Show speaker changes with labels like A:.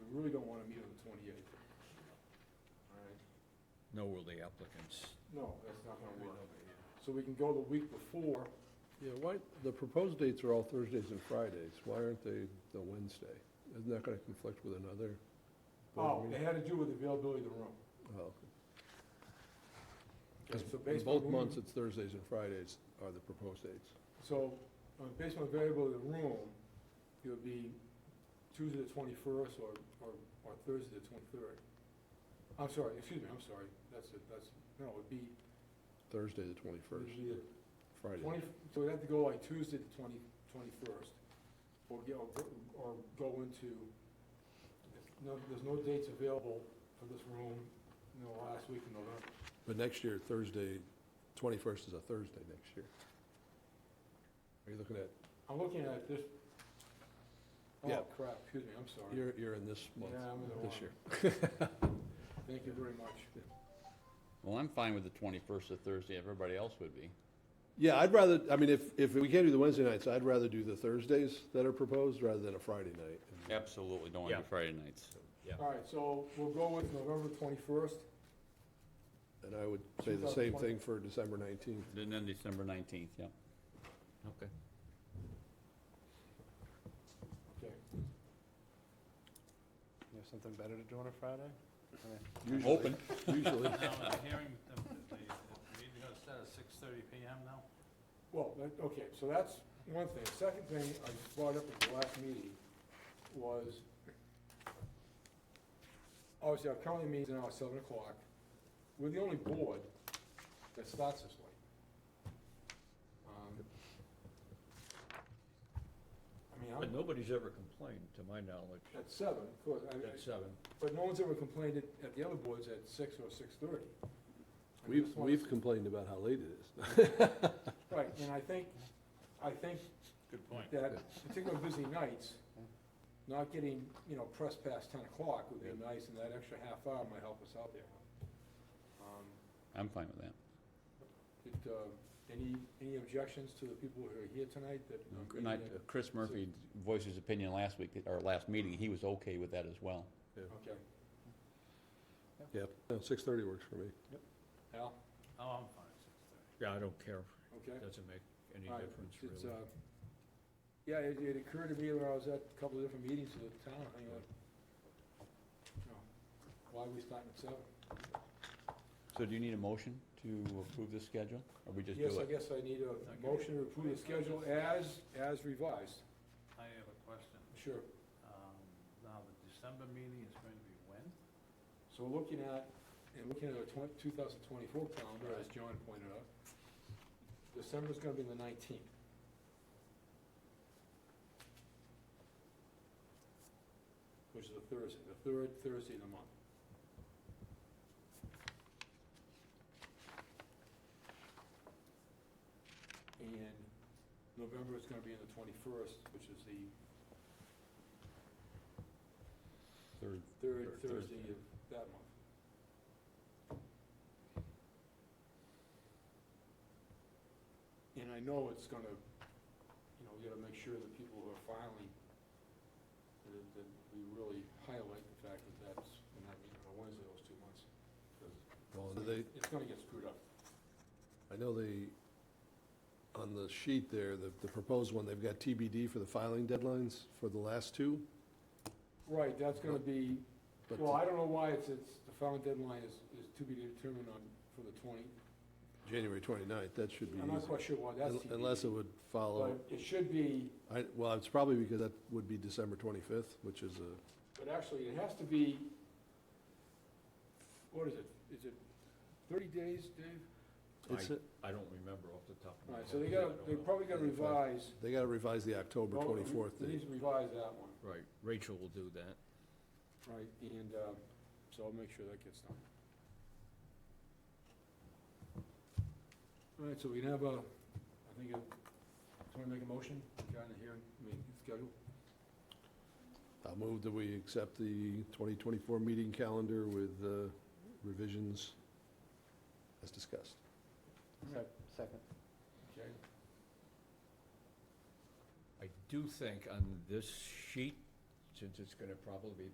A: twenty-eighth. All right,
B: nor will the applicants.
A: no, that's not gonna work. So we can go the week before,
C: Yeah, why, the proposed dates are all Thursdays and Fridays. Why aren't they the Wednesday? Isn't that going to conflict with another? board
A: oh,
C: meeting?
A: it had to do with availability of the room.
C: Oh, okay.
A: Okay, so
C: In
A: based on
C: both
A: room-
C: months, it's Thursdays and Fridays are the proposed dates.
A: So, uh, based on availability of the room, it would be Tuesday the twenty-first or, or, or Thursday the twenty-third. I'm sorry, excuse me, I'm sorry, that's it, that's, no, it'd be,
C: Thursday, the
A: it'd
C: twenty-first,
A: be the
C: Friday.
A: Twenty, so we'd have to go like Tuesday the twenty, twenty-first, or get, or go- or go into, if no, there's no dates available for this room, you know, last week in November.
C: But next year, Thursday, twenty-first is a Thursday next year. Are you looking at,
A: I'm looking at this,
C: Yeah.
A: oh crap, excuse me, I'm sorry.
C: you're, you're in this month,
A: Yeah, I'm in the
C: this
A: wrong.
C: year.
A: Thank you very much.
D: Well, I'm fine with the 21st of Thursday, everybody else would be.
C: Yeah, I'd rather, I mean, if, if we can't do the Wednesday nights, I'd rather do the Thursdays that are proposed rather than a Friday night.
D: Absolutely, don't want to
B: Yeah.
D: do Friday nights.
A: All right, so we'll go with November twenty-first.
C: And I would say the same thing for December nineteenth.
D: And then December 19th, yeah.
B: Okay.
A: Okay.
E: You have something better to do on a Friday?
D: Open.
C: Usually,
F: Now, the hearing, the, the, meeting's gonna start at six thirty PM now?
A: Well, that, okay, so that's one thing. Second thing I brought up at the last meeting was, obviously, our county meeting's now at seven o'clock. We're the only board that starts this late. Um, I mean,
B: But
A: I'm,
B: nobody's ever complained, to my knowledge,
A: at seven, of course, I-
B: at seven.
A: but no one's ever complained at, at the other boards at six or six-thirty.
C: we've, we've complained about how late it is.
A: Right, and I think, I think
F: Good point.
A: that particular busy nights, not getting, you know, pressed past ten o'clock would be nice, and that extra half hour might help us out there. Um,
D: I'm fine with that.
A: Did, uh, any, any objections to the people who are here tonight that?
D: And I- uh, Chris Murphy voiced his opinion last week, or last meeting, he was okay with that as well.
A: Okay,
C: Yep, six-thirty works for me.
A: Al,
F: Oh, I'm fine at six thirty.
B: Yeah, I don't care,
A: okay?
B: it doesn't make any
A: All right,
B: difference
A: It's,
B: really.
A: uh, Yeah, it, it occurred to me when I was at a couple of different meetings of the town, I go, "Oh, why are we starting at seven?
D: So do you need a motion to approve this schedule, or we just do it?
A: Yes, I guess I need a motion to approve the schedule as, as revised,
F: uh, I have a question.
A: sure.
F: Um, now, the December meeting is going to be when?
A: So we're looking at, and looking at our twen- 2024 calendar, as John pointed out, December's gonna be the 19th. Which is a Thursday, the third Thursday of the month. And November is gonna be in the 21st, which is the
D: Third-
A: third
D: Third
A: Thursday
D: Thursday.
A: of that month. And I know it's gonna, you know, we gotta make sure that people who are filing, that, that we really highlight the fact that that's, and I mean, on Wednesday, those two months. 'cause
C: Well, Oh, do they,
A: It's gonna get screwed up.
C: I know they, on the sheet there, the, the proposed one, they've got TBD for the filing deadlines for the last two,
A: Right, that's gonna be,
C: but
A: well, I don't know why it's, it's, the filing deadline is, is to be determined on, for the twenty.
C: January 29th, that should be
A: I'm not
C: easy.
A: quite sure why that's
C: Un- Unless it would follow,
A: But it should be.
C: I, well, it's probably because that would be December 25th, which is a,
A: But actually, it has to be, what is it, is it thirty days, Dave?
C: it's, a-
B: I don't remember off the top of my
A: All
B: head.
A: right, so they
B: I
A: gotta,
B: don't
A: they
B: know.
A: probably gotta revise.
C: they got to revise the October
A: Well,
C: 24th
A: They need
C: date.
A: to revise that one,
B: Right, Rachel will do that.
A: right, and, um, so I'll make sure that gets done. All right, so we can have a, I think, a- someone make a motion, got in here, I mean, schedule?
C: I'll move that we accept the 2024 meeting calendar with uh, revisions as discussed.
E: Second.
A: Okay.
B: I do think on this sheet, since it's gonna probably be